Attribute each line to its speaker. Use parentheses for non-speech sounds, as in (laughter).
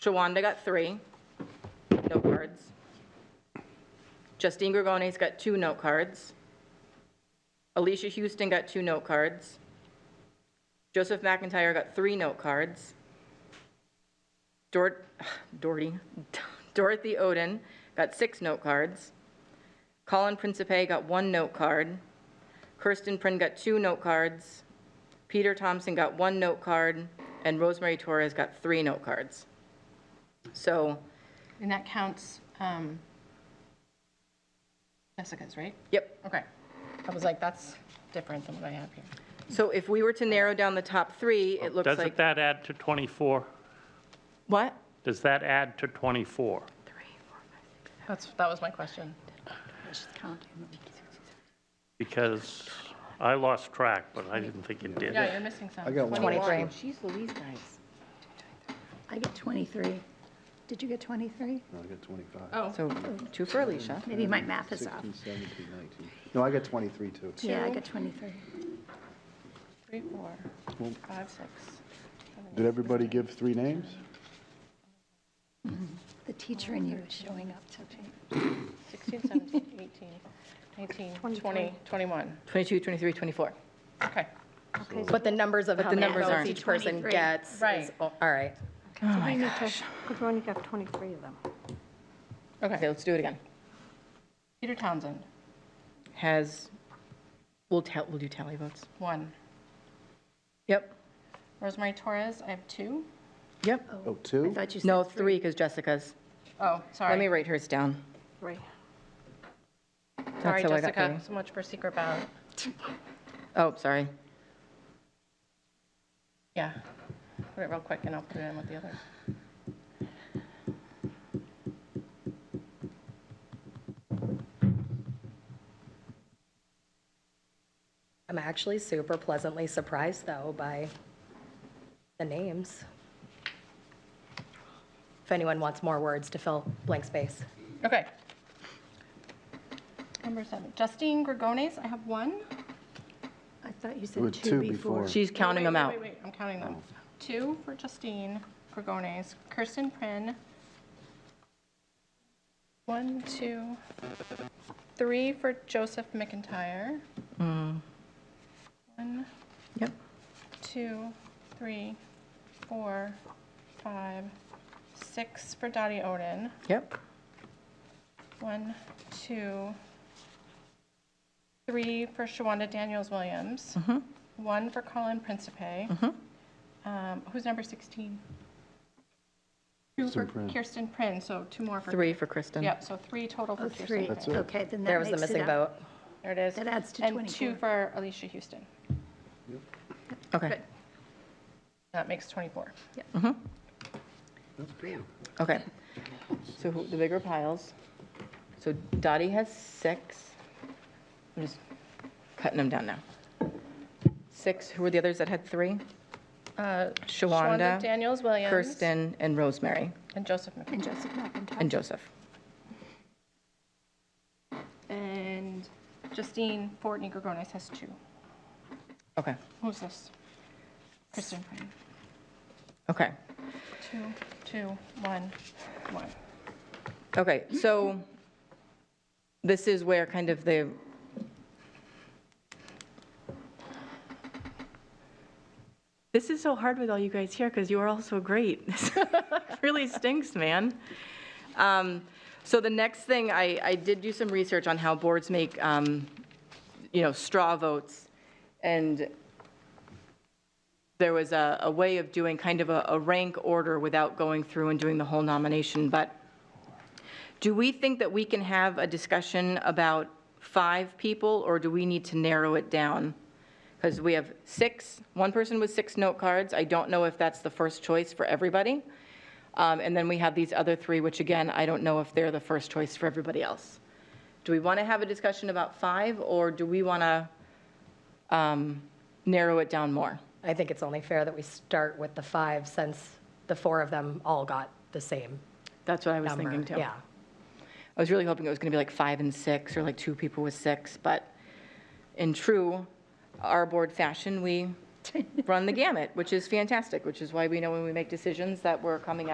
Speaker 1: Shawanda got three note cards. Justine Gregone's got two note cards. Alicia Houston got two note cards. Joseph McIntyre got three note cards. Dor- (sighs) Doherty, (laughs) Dorothy Oden got six note cards. Colin Principe got one note card. Kirsten Prin got two note cards. Peter Thompson got one note card, and Rosemary Torres got three note cards. So,
Speaker 2: And that counts um, Jessica's, right?
Speaker 1: yep.
Speaker 2: Okay. I was like, that's different than what I have here.
Speaker 1: So if we were to narrow down the top three, it looks
Speaker 3: Doesn't
Speaker 1: like,
Speaker 3: that add to 24?
Speaker 1: what?
Speaker 3: Does that add to 24?
Speaker 2: That's, that was my question.
Speaker 3: Because I lost track, but I didn't think it did.
Speaker 2: Yeah, you're missing some. I
Speaker 4: got one.
Speaker 2: 23.
Speaker 5: She's Louise, guys.
Speaker 6: I get 23. Did you get 23?
Speaker 4: No, I got 25.
Speaker 1: So two for Alicia.
Speaker 6: Maybe my math is
Speaker 4: 16,
Speaker 6: Oh, off.
Speaker 4: 17, 19. No, I got 23 too.
Speaker 6: Yeah, I got 23.
Speaker 2: Three, four, five, six.
Speaker 4: Did everybody give three names?
Speaker 6: The teacher in you is showing up today.
Speaker 2: 16, (laughs) 17, 18, 19, 20, 21.
Speaker 1: 22, 23, 24.
Speaker 2: Okay.
Speaker 7: But the numbers of how
Speaker 1: the
Speaker 7: many
Speaker 1: numbers
Speaker 7: votes
Speaker 1: aren't.
Speaker 7: each person
Speaker 6: 23.
Speaker 7: gets. is-
Speaker 2: Right.
Speaker 7: All right.
Speaker 5: Oh, my gosh. We've only got 23 of them.
Speaker 1: Okay, let's do it again.
Speaker 2: Peter Townsend,
Speaker 1: Has, we'll tell, we'll do tally votes.
Speaker 2: one.
Speaker 1: Yep,
Speaker 2: Rosemary Torres, I have two.
Speaker 1: yep.
Speaker 4: Oh, two?
Speaker 6: Thought you said
Speaker 1: No, three, because Jessica's.
Speaker 2: Oh,
Speaker 1: Let me
Speaker 2: sorry.
Speaker 1: write hers down.
Speaker 5: Right.
Speaker 2: Sorry,
Speaker 1: how I got
Speaker 2: Jessica,
Speaker 1: three.
Speaker 2: so much for secret ballot.
Speaker 1: Oh, sorry.
Speaker 2: Yeah. Put it real quick and I'll put it in with the other.
Speaker 7: I'm actually super pleasantly surprised, though, by the names. If anyone wants more words to fill blank space.
Speaker 2: Okay. Number seven, Justine Gregones, I have one.
Speaker 6: I thought you
Speaker 4: There were
Speaker 6: said two before.
Speaker 1: She's counting them
Speaker 2: Wait,
Speaker 1: out.
Speaker 2: Wait, wait, I'm counting them. Two for Justine Gregones, Kirsten Prin. One, two, three for Joseph McIntyre. One,
Speaker 1: Mm. Yep.
Speaker 2: two, three, four, five, six for Dottie Oden.
Speaker 1: Yep,
Speaker 2: One, two, three for Shawanda Daniels Williams.
Speaker 1: Mm-hmm.
Speaker 2: One for Colin Principe. Um, Who's number 16? Two for
Speaker 4: Kirsten Prin.
Speaker 2: Kirsten Prin, so two more for.
Speaker 1: three for Kristen.
Speaker 2: Yep, so three total for
Speaker 6: Oh,
Speaker 2: Kirsten.
Speaker 6: three.
Speaker 2: Prin.
Speaker 4: it.
Speaker 6: Okay, then that
Speaker 7: There was the
Speaker 6: makes it
Speaker 7: missing
Speaker 6: up.
Speaker 7: vote.
Speaker 2: There it is.
Speaker 6: That adds to
Speaker 2: And two
Speaker 6: 24.
Speaker 2: for Alicia Houston.
Speaker 1: Okay,
Speaker 2: That makes 24.
Speaker 4: That's great.
Speaker 1: okay. So who- the bigger piles. So Dottie has six. I'm just cutting them down now. Six, who were the others that had three?
Speaker 2: Uh,
Speaker 1: Shawanda,
Speaker 2: Daniels Williams.
Speaker 1: Kirsten, and Rosemary,
Speaker 2: And Joseph McIntyre.
Speaker 6: And Joseph McIntyre.
Speaker 1: and Joseph.
Speaker 2: And Justine Fortney Gregonis has two.
Speaker 1: Okay,
Speaker 2: Who's this? Kristen Prin.
Speaker 1: okay.
Speaker 2: Two, two, one, one.
Speaker 1: Okay, so this is where kind of the, this is so hard with all you guys here because you are all so great. (laughs) Really stinks, man. Um, So the next thing, I, I did do some research on how boards make, um, you know, straw votes. And there was a, a way of doing kind of a, a rank order without going through and doing the whole nomination. But do we think that we can have a discussion about five people, or do we need to narrow it down? Because we have six, one person with six note cards. I don't know if that's the first choice for everybody. Um, And then we have these other three, which again, I don't know if they're the first choice for everybody else. Do we want to have a discussion about five, or do we want to um, narrow it down more?
Speaker 7: I think it's only fair that we start with the five since the four of them all got the same
Speaker 1: That's what I was
Speaker 7: number.
Speaker 1: thinking, too.
Speaker 7: Yeah.
Speaker 1: I was really hoping it was going to be like five and six, or like two people with six, but in true our board fashion, we run the gamut, which is fantastic, which is why we know when we make decisions that we're coming out.